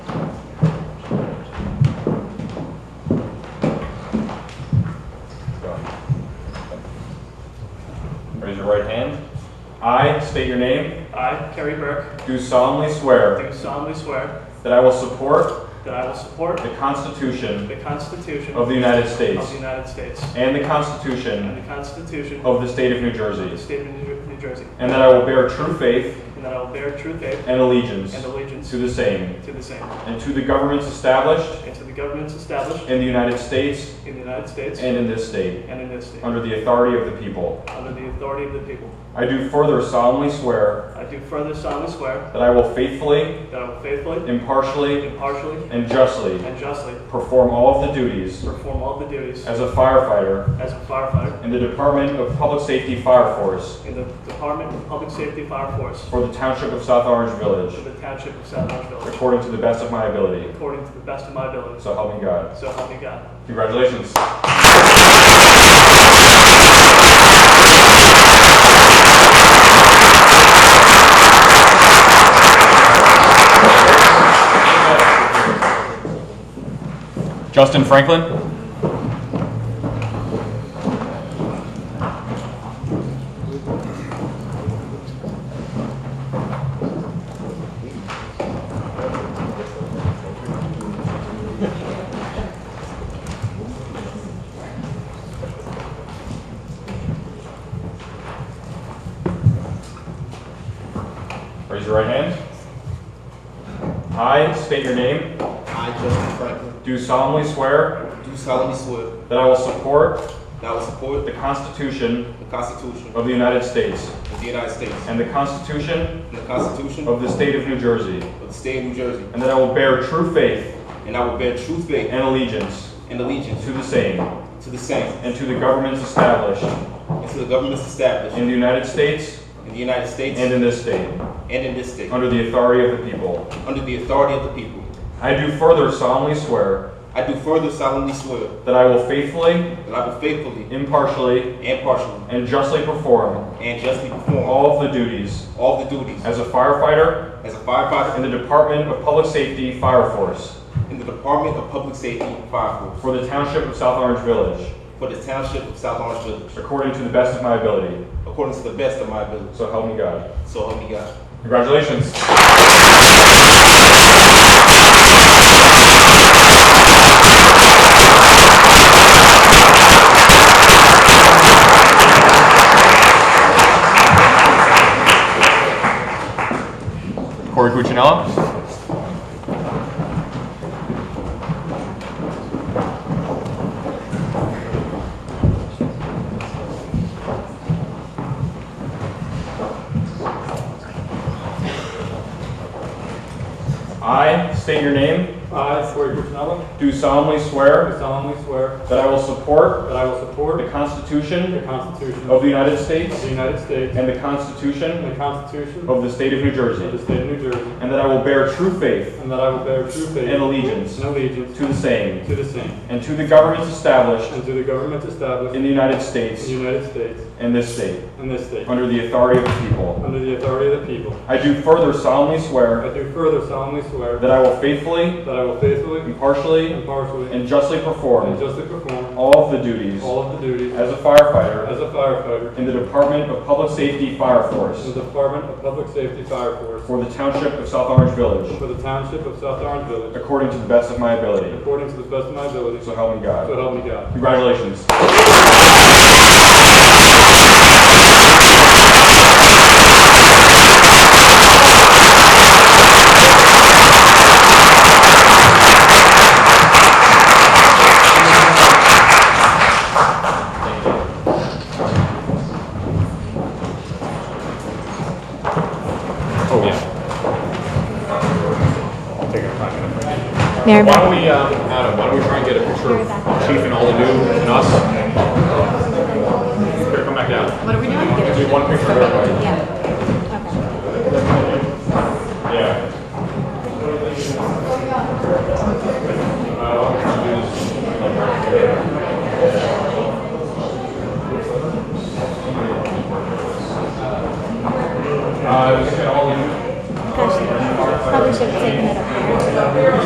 state your name, I, Kerry Burke, do solemnly swear do solemnly swear that I will support that I will support the Constitution the Constitution of the United States of the United States and the and Constitution the Constitution of of the State of New the Jersey, State of New Jer- New Jersey, and that I will bear true faith and that I will bear true faith and allegiance and allegiance to the same to the same, and to the governments established and to the governments established in the United States in the United States and in this state and in this state, under the authority of the people. under the authority of the people. I do further solemnly swear I do further solemnly swear that I will faithfully, that I will faithfully, impartially, impartially, and justly and justly perform all of the duties perform all the duties as a firefighter as a firefighter in the Department of Public Safety Fire Force in the Department of Public Safety Fire Force for the Township of South Orange for Village, the Township of South Orange Village, according to the best of my ability. according to the best of my abilities. So help me God. So help me God. Congratulations. Justin Franklin? Raise your right hand. I state your name, I, Justin Franklin, do solemnly swear do solemnly swear that I will support that I will support the Constitution the Constitution of the United States of the United States and the Constitution and the Constitution of of the State of New Jersey, the State of New Jersey, and that I will bear true faith and I will bear true faith and allegiance and allegiance to the same to the same and to the governments established and to the governments established in the United States in the United States and in this state, and in this state, under the authority of the people. under the authority of the people. I do further solemnly swear I do further solemnly swear that I will faithfully, that I will faithfully impartially, and partially and justly perform and justly perform all of the duties all the duties as a firefighter as a in firefighter the Department of Public Safety Fire Force in the Department of Public Safety and Fire Force for the Township of South Orange Village, for the Township of South Orange Village, according to the best of my ability. according to the best of my ability. So help me God. So help me God. Congratulations. Corey Cuccinella. I state your name, I, Corey Cuccinella, do solemnly swear do solemnly swear that I will support that I will support the the Constitution Constitution of of the United States the United States and the Constitution and the Constitution of of the State of New the Jersey, State of New Jersey, and that I will bear true faith and that I will bear true faith and and allegiance allegiance to the same to the same and to the governments established and to the governments established in the United in States the United States and this state and this state, under the authority of the people. under the authority of the people. I do further solemnly I swear do further solemnly swear that I will faithfully, that I will faithfully, impartially, impartially, and justly and perform justly perform all of the duties all of the duties as a firefighter as a firefighter in the Department of Public Safety Fire in Force the Department of Public Safety Fire Force for the Township of South Orange Village for the Township of South Orange Village, according to the best of my ability. according to the best of my ability, So help me God. so help me God. Congratulations. Oh, yeah. Mayor Why don't we, um, Adam, why don't we try and get a picture of Chief and all the new and us? Here, come back down. What are we doing? Do one picture of everybody. Uh,